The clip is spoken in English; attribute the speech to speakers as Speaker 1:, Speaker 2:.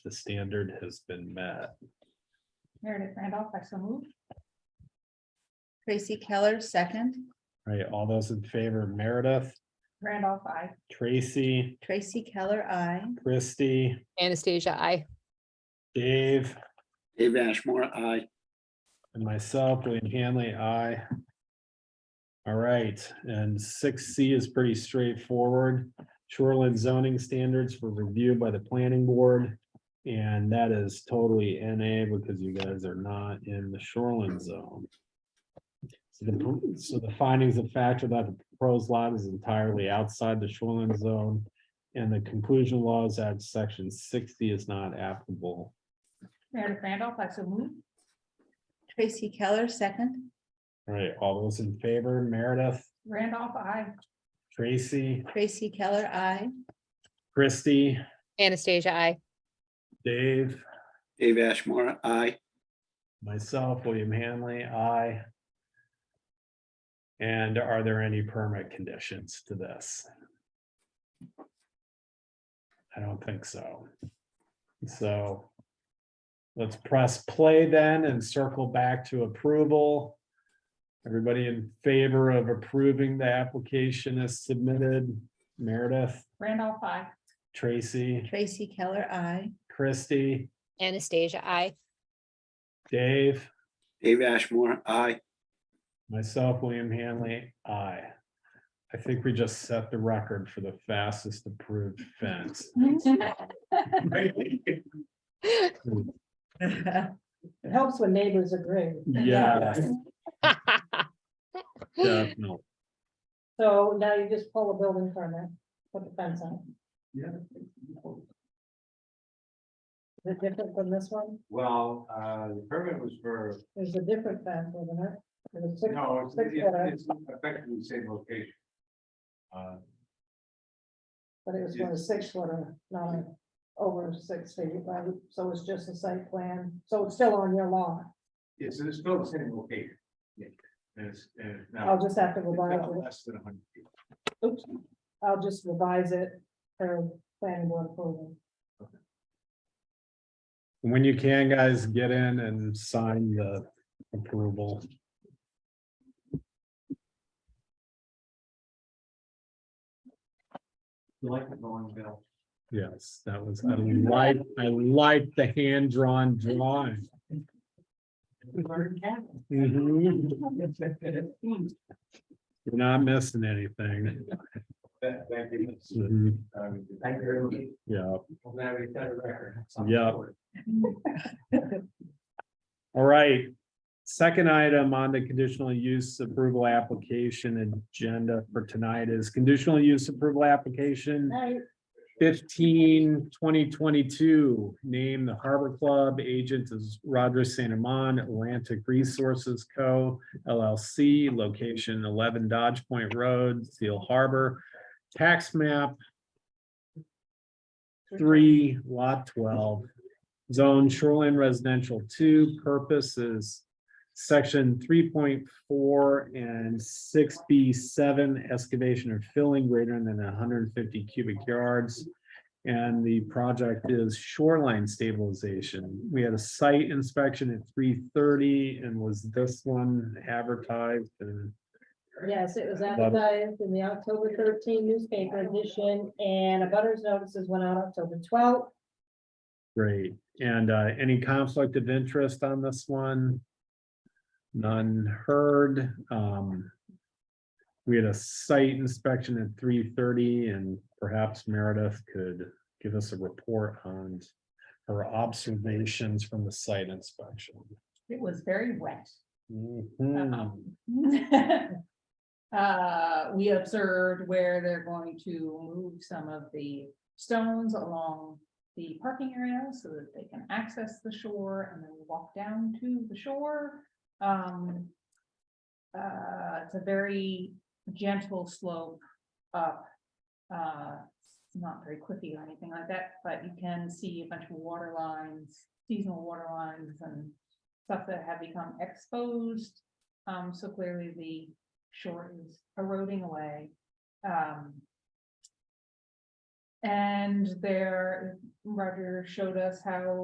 Speaker 1: the standard has been met.
Speaker 2: Meredith Randolph, I so move.
Speaker 3: Tracy Keller, second.
Speaker 1: All Right, all those in favor, Meredith,
Speaker 2: Randolph, I.
Speaker 1: Tracy,
Speaker 3: Tracy Keller, I.
Speaker 1: Christy,
Speaker 4: Anastasia, I.
Speaker 1: Dave,
Speaker 5: Dave Ashmore, aye.
Speaker 1: and myself, William Hanley, I. All right, and six C is pretty straightforward. Shoreland zoning standards for review by the planning board. And that is totally NA because you guys are not in the shoreline zone. So the, so the findings of fact about the proposed lot is entirely outside the shoreline zone. And the conclusion laws at section sixty is not applicable.
Speaker 2: Meredith Randolph, I so move.
Speaker 3: Tracy Keller, second.
Speaker 1: All right, all those in favor, Meredith?
Speaker 2: Randolph, I.
Speaker 1: Tracy,
Speaker 3: Tracy Keller, I.
Speaker 1: Christy,
Speaker 4: Anastasia, I.
Speaker 1: Dave,
Speaker 5: Dave Ashmore, aye.
Speaker 1: myself, William Hanley, I. And are there any permit conditions to this? I don't think so. So let's press play then and circle back to approval. Everybody in favor of approving the application as submitted, Meredith,
Speaker 2: Randolph, I.
Speaker 1: Tracy,
Speaker 3: Tracy Keller, I.
Speaker 1: Christy,
Speaker 4: Anastasia, I.
Speaker 1: Dave.
Speaker 5: Dave Ashmore, aye.
Speaker 1: Myself, William Hanley, I. I think we just set the record for the fastest approved fence.
Speaker 6: It helps when neighbors agree.
Speaker 1: Yeah, definitely.
Speaker 6: So now you just pull a building permit, put the fence on.
Speaker 7: Yeah.
Speaker 6: Is it different from this one?
Speaker 7: Well, uh, the permit was for,
Speaker 6: There's a different fence, wasn't it? It was six-
Speaker 7: no, it's-
Speaker 6: six foot,
Speaker 7: it's effectively the same location. Uh,
Speaker 6: But it was for a six footer, not a- over six feet, right? So it's just a site plan, so it's still on your lot.
Speaker 7: It's, it's still the same location. Yeah. And it's, and it's now.
Speaker 6: I'll just have to
Speaker 7: it's now
Speaker 6: revise it.
Speaker 7: Less than a hundred feet.
Speaker 6: Oops, I'll just revise it for planning board approval.
Speaker 1: When you can, guys, get in and sign the approval.
Speaker 7: You like the going, Bill?
Speaker 1: Yes, that was, I like, I like the hand-drawn drawing. Mhm. You're not missing anything.
Speaker 7: Thank thank you.
Speaker 1: Mhm.
Speaker 7: Thank you.
Speaker 1: Yeah.
Speaker 7: I'm glad we set a record.
Speaker 1: Yeah. All right. Second item on the conditional use approval application agenda for tonight is conditional use approval application
Speaker 6: Now, you-
Speaker 1: 15 2022. Name the Harbor Club, agent is Roger Saint Amand, Atlantic Resources Co. LLC, location eleven Dodge Point Road, Seal Harbor, tax map three lot twelve. Zone shoreline residential two purposes. Section three point four and six B seven excavation or filling greater than hundred and fifty cubic yards. And the project is shoreline stabilization. We had a site inspection at three thirty and was this one advertised and
Speaker 6: Yes, it was
Speaker 1: Love it.
Speaker 6: advertised in the October thirteen newspaper edition and a butters notices went out October twelfth.
Speaker 1: great. And uh, any conflict of interest on this one? None heard. Um, We had a site inspection at three thirty and perhaps Meredith could give us a report on her observations from the site inspection.
Speaker 2: It was very wet. Uh-huh.
Speaker 1: Mhm.
Speaker 2: Um, Uh, we observed where they're going to move some of the stones along the parking area so that they can access the shore and then walk down to the shore. Um. Uh, it's a very gentle slope up. Uh, it's not very cliffy or anything like that, but you can see a bunch of water lines, seasonal water lines and stuff that have become exposed. Um, so clearly the shore is eroding away. Um. And there, Roger showed us how